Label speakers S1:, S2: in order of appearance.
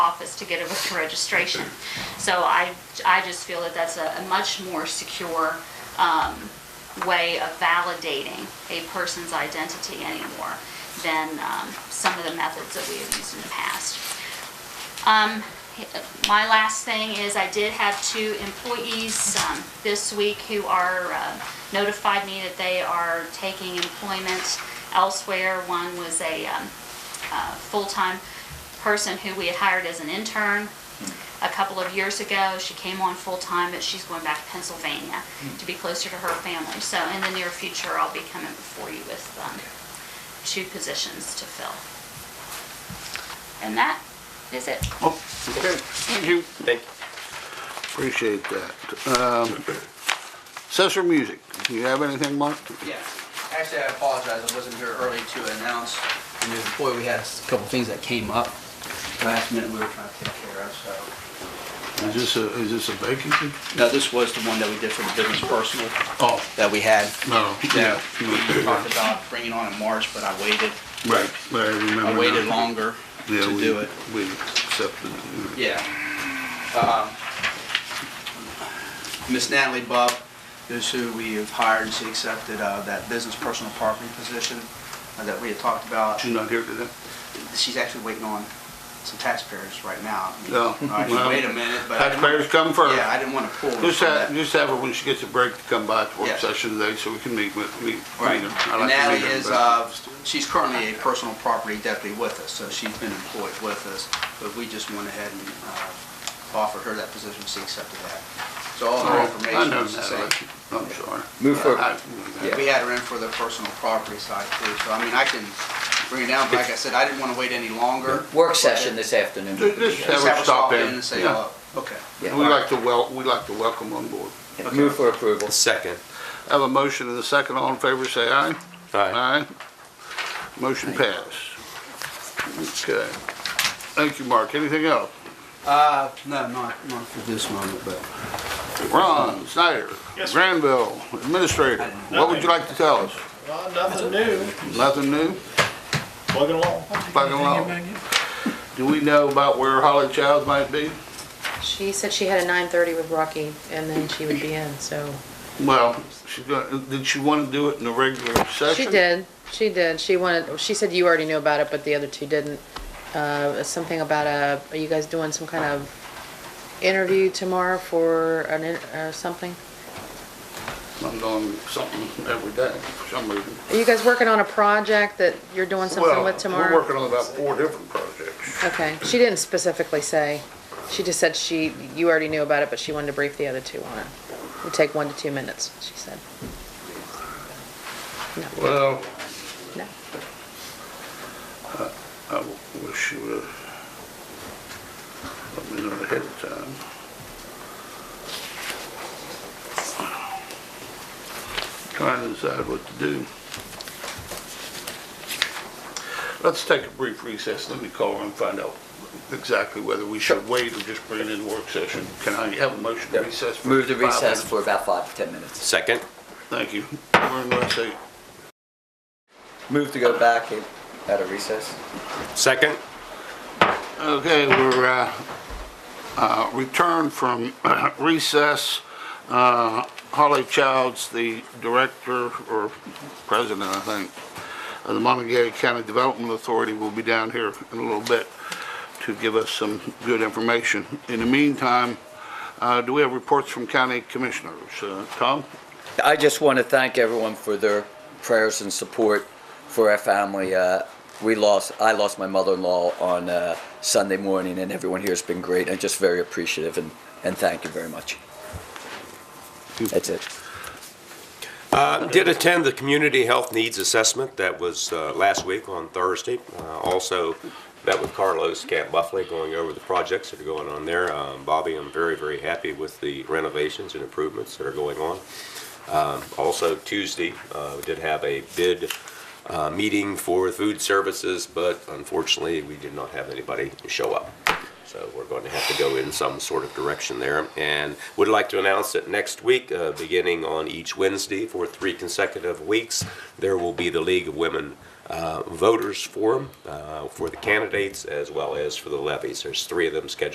S1: office to get a voter registration. So I, I just feel that that's a a much more secure um, way of validating a person's identity anymore than um, some of the methods that we have used in the past. Um, My last thing is I did have two employees um, this week who are, uh, notified me that they are taking employment elsewhere. One was a um, uh, full-time person who we had hired as an intern a couple of years ago. She came on full-time, but she's going back to Pennsylvania to be closer to her family. So in the near future, I'll be coming before you with um, two positions to fill. And that is it.
S2: Okay, thank you.
S3: Thank you.
S2: Appreciate that. Um, Session Music, do you have anything, Mark?
S4: Yeah, actually, I apologize, I wasn't here early to announce the new employee. We had a couple things that came up last minute we were trying to take care of, so.
S2: Is this a, is this a vacancy?
S4: No, this was the one that we did for the business personal
S2: Oh,
S4: that we had.
S2: no, yeah.
S4: That we talked about bringing on in March, but I waited,
S2: Right, but I remember.
S4: I waited
S2: now.
S4: longer
S2: Yeah,
S4: to
S2: we-
S4: do it.
S2: We accepted it.
S4: Yeah. Um, Miss Natalie Bubb is who we have hired, and she accepted uh, that business personal property position uh, that we had talked about.
S2: She's not here today?
S4: She's actually waiting on some taxpayers right now.
S2: No.
S4: All right,
S2: Oh. Well,
S4: Wait a minute, but. I didn't-
S2: Taxpayers come first.
S4: Yeah, I didn't want to pull. her
S2: Just
S4: from
S2: have,
S4: that.
S2: just have her when she gets a break to come by to work
S4: Yeah.
S2: session today so we can meet with, meet. meet her.
S4: Right.
S2: I'd
S4: And
S2: like to meet
S4: Natalie
S2: her,
S4: is,
S2: but-
S4: uh, she's currently a personal property deputy with us, so she's been employed with us, but we just went ahead and uh, offered her that position, she accepted that. So all her
S2: Oh, I
S4: information
S2: know
S4: is the same.
S2: Natalie, I'm sorry.
S3: Move forward.
S2: I-
S4: Yeah, We had her in for the personal property side too, so I mean, I can bring it down, but like I said, I didn't want to wait any longer.
S3: Work session this afternoon.
S2: Ju- Just
S4: Just
S2: have
S4: have
S2: her
S4: her
S2: stop in.
S4: and say
S2: Yeah.
S4: hello. Okay.
S3: Yeah.
S2: We'd like to wel, we'd like to welcome on board.
S3: Move for approval.
S5: Second.
S2: I Have a motion and a second, all in favor, say aye.
S5: Aye.
S2: Motion passed. Okay. Thank you, Mark. Anything else?
S4: Uh, no, not, not for this moment, but.
S2: Ron Snyder,
S6: Yes, sir.
S2: Granville, Administrator, what would you like to tell us?
S6: Well, nothing new,
S2: Nothing new?
S6: plugging along.
S2: Plugging along. Do we know about where Holly Childs might be?
S7: She said she had a nine thirty with Rocky, and then she would be in, so.
S2: Well, she's gonna, did she want to do it in a regular session?
S7: She did, she did, she wanted, she said you already knew about it, but the other two didn't. Uh, something about a, are you guys doing some kind of interview tomorrow for an, in- or something?
S2: I'm doing something every day for some reason.
S7: Are you guys working on a project that you're doing something
S2: Well,
S7: with
S2: We're
S7: tomorrow?
S2: working on about four different projects.
S7: Okay, she didn't specifically say, she just said she, you already knew about it, but she wanted to brief the other two on it. It'd take one to two minutes, she said.
S2: Well,
S7: No,
S2: I w- wish you would have let me know ahead of time. Trying to decide what to do. Let's take a brief recess, let me call her and find out exactly whether we should wait or just bring it in work session. Can I have a motion to recess? for
S3: Move to
S2: five
S3: recess
S2: minutes?
S3: for about five to 10 minutes.
S5: Second.
S2: Thank you. We're in recess.
S3: Move to go back at- at a recess.
S5: Second.
S2: Okay, we're, uh, uh, returned from recess. Uh, Holly Childs, the director, or president, I think, of the Montague County Development Authority will be down here in a little bit to give us some good information. In the meantime, uh, do we have reports from county commissioners? Uh, Tom?
S3: I just want to thank everyone for their prayers and support for our family. Uh, we lost, I lost my mother-in-law on uh, Sunday morning, and everyone here has been great. I'm just very appreciative and, and thank you very much. That's it.
S5: Uh, Did attend the Community Health Needs Assessment that was uh, last week on Thursday. Uh, Also met with Carlos Camp Buffley, going over the projects that are going on there. Um, Bobby, I'm very, very happy with the renovations and improvements that are going on. Um, Also Tuesday, uh, we did have a bid uh, meeting for food services, but unfortunately, we did not have anybody show up. So we're going to have to go in some sort of direction there. And would like to announce that next week, uh, beginning on each Wednesday for three consecutive weeks, there will be the League of Women uh, voters forum uh, for the candidates as well as for the levies. There's three of them scheduled